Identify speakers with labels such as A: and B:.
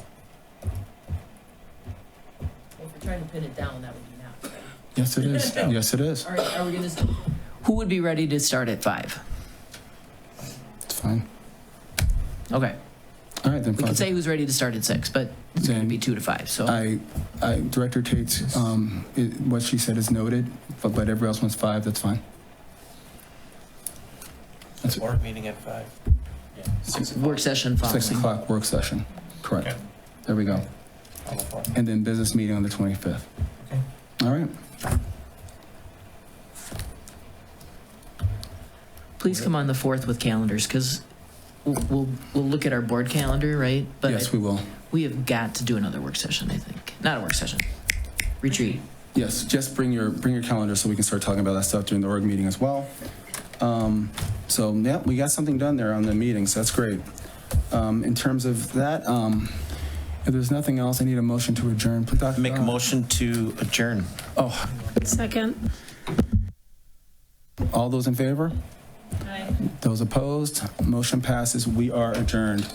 A: trying to pin it down, that would be now.
B: Yes, it is. Yes, it is.
A: All right, are we gonna, s- who would be ready to start at five?
B: It's fine.
A: Okay,
B: All right, then.
A: we
B: fine.
A: could say who's ready to start at six, but it's gonna
B: Then-
A: be two to five, so.
B: I, I, Director Tate's, um, i what she said is noted, but, but everybody else wants five, that's fine. That's it.
C: Board meeting at five. Six
A: Work session
B: Six
A: following.
B: o'clock work session, correct.
C: Okay.
B: There we go.
C: on the floor.
B: And then business meeting on the 25th.
C: Okay.
B: All right,
A: Please come on the fourth with calendars, because we'll, we'll- we'll look at our board calendar, right? But
B: yes, we will.
A: we have got to do another work session, I think. Not a work session, retreat.
B: Yes, just bring your, bring your calendar so we can start talking about that stuff during the org meeting as well. Um, So, yeah, we got something done there on the meetings, that's great. Um, In terms of that, um, if there's nothing else, I need a motion to adjourn. Please, Dr.
C: Make a
B: Dodd.
C: motion to adjourn.
B: Oh,
D: Second.
B: all those in favor? Those opposed? Motion passes. We are adjourned.